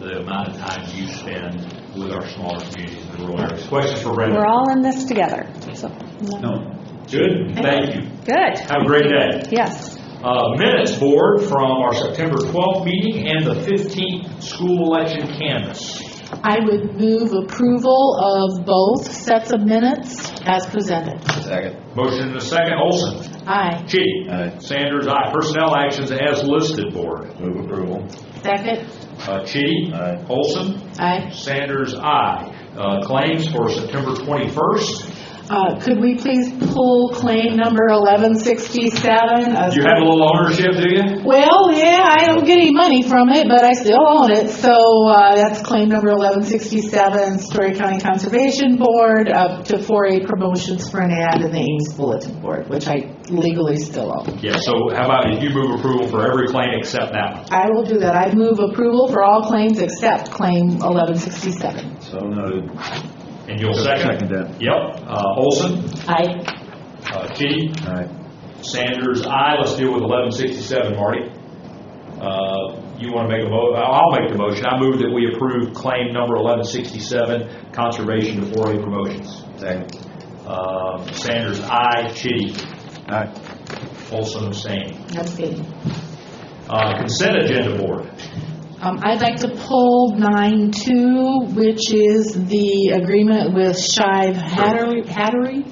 amount of time you spend with our smaller communities in rural areas. Questions for Brenda? We're all in this together, so. No. Good, thank you. Good, Have a great day. yes. Uh, Minutes board from our September 12th meeting and the 15th school election canvas. I would move approval of both sets of minutes as presented. Second. Motion and a second, Olson. Aye. Chitty. Aye. Sanders, aye. Personnel actions as listed board. Move approval. Second? Uh, Chitty. Aye. Olson. Aye. Sanders, aye. Uh, Claims for September 21st. Uh, Could we please pull claim number 1167? Uh, You have a little ownership, do you? Well, yeah, I don't get any money from it, but I still own it, so uh, that's claim number 1167, Story County Conservation Board, up to 4A promotions for an ad in the Ames Bulletin Board, which I legally still own. Yeah, so how about if you move approval for every claim except that one? I will do that. I move approval for all claims except claim 1167. So noted. And you'll second? Second that. Yep. Uh, Olson. Aye. uh, Chitty. Aye. Sanders, aye. Let's deal with 1167, Marty. Uh, You want to make a mo, I'll make the motion. I move that we approve claim number 1167, conservation to 4A promotions. Second. Uh, Sanders, aye. Chitty. Aye. Olson, abstain. Abstain. Uh, Consent agenda board. Um, I'd like to pull 9-2, which is the agreement with Shive Hattery- Hattery.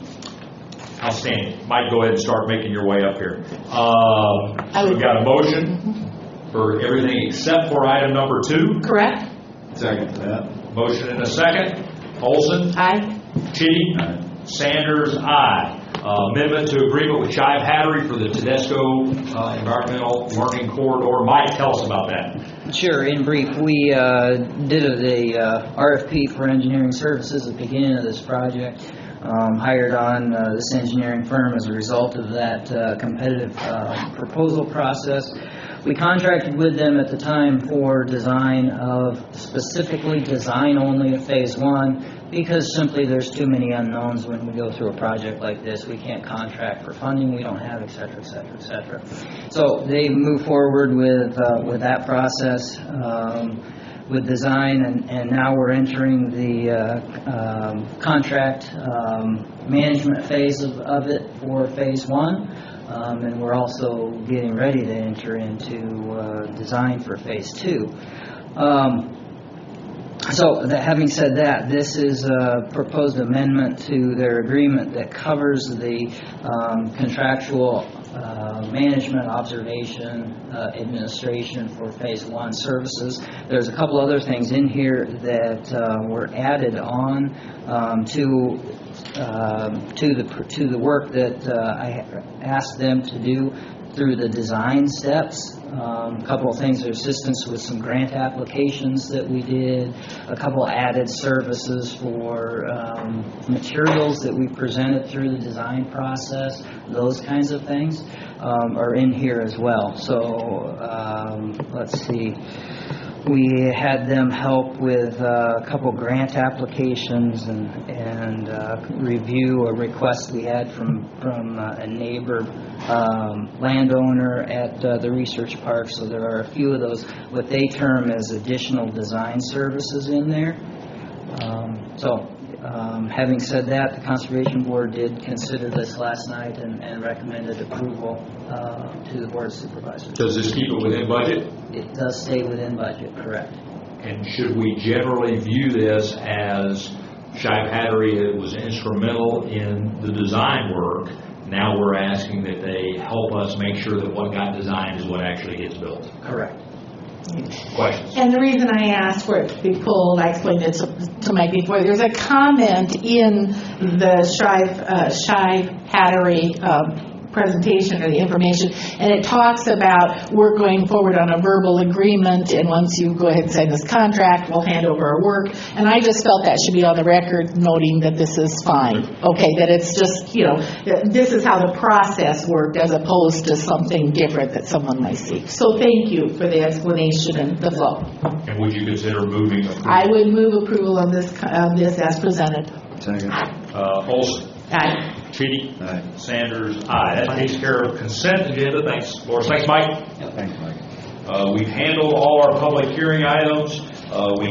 Outstanding. Mike, go ahead and start making your way up here. Um, I would- We've got a motion for everything except for item number two. correct? Second that. Motion and a second. Olson? Aye. Chitty? Aye. Sanders, aye. Uh, Amendment to agreement with Shive Hattery for the Tedesco uh, Environmental Learning Corridor. Mike, tell us about that. Sure, in brief, we uh, did a- a uh, RFP for engineering services at the beginning of this project, um, hired on uh, this engineering firm as a result of that uh, competitive uh, proposal process. We contracted with them at the time for design of, specifically design only of Phase 1, because simply there's too many unknowns when we go through a project like this. We can't contract for funding, we don't have, et cetera, et cetera, et cetera. So they move forward with, uh, with that process, um, with design, and, and now we're entering the, uh, um, contract, um, management phase of, of it for phase one. Um, and we're also getting ready to enter into, uh, design for phase two. Um, so, that- having said that, this is a proposed amendment to their agreement that covers the um, contractual uh, management, observation, uh, administration for Phase One services. There's a couple other things in here that uh, were added on um, to um, to the, to the work that uh, I asked them to do through the design steps. Um, A Couple of things, their assistance with some grant applications that we did, a couple added services for um, materials that we presented through the design process, those kinds of things um, are in here as well. So, um, let's see. We had them help with uh, a couple grant applications and, and uh, review a request we had from, from uh, a neighbor um, landowner at uh, the research park, so there are a few of those, what they term as additional design services in there. Um, So, um, having said that, the Conservation Board did consider this last night and and recommended approval uh, to the Board of Supervisors. Does this keep it within budget? It does stay within budget, correct? And should we generally view this as Shive Hattery was instrumental in the design work? Now we're asking that they help us make sure that what got designed is what actually gets built. Correct. Questions? And the reason I asked for it to be pulled, I explained it to- to Mike before, there's a comment in the Shive, uh, Shive Hattery um, presentation or the information, and it talks about we're going forward on a verbal agreement, and once you go ahead and sign this contract, we'll hand over our work. And I just felt that should be on the record, noting that this is fine, okay, that it's just, you know, that this is how the process worked as opposed to something different that someone might see. So thank you for the explanation and the flow. And would you consider moving approval? I would move approval on this, on this as presented. Second. Uh, Olson? Aye. Chitty? Aye. Sanders, aye. That takes care of consent agenda. Thanks, Laura. Thanks, Mike. Thanks, Mike. Uh, We've handled all our public hearing items. Uh, We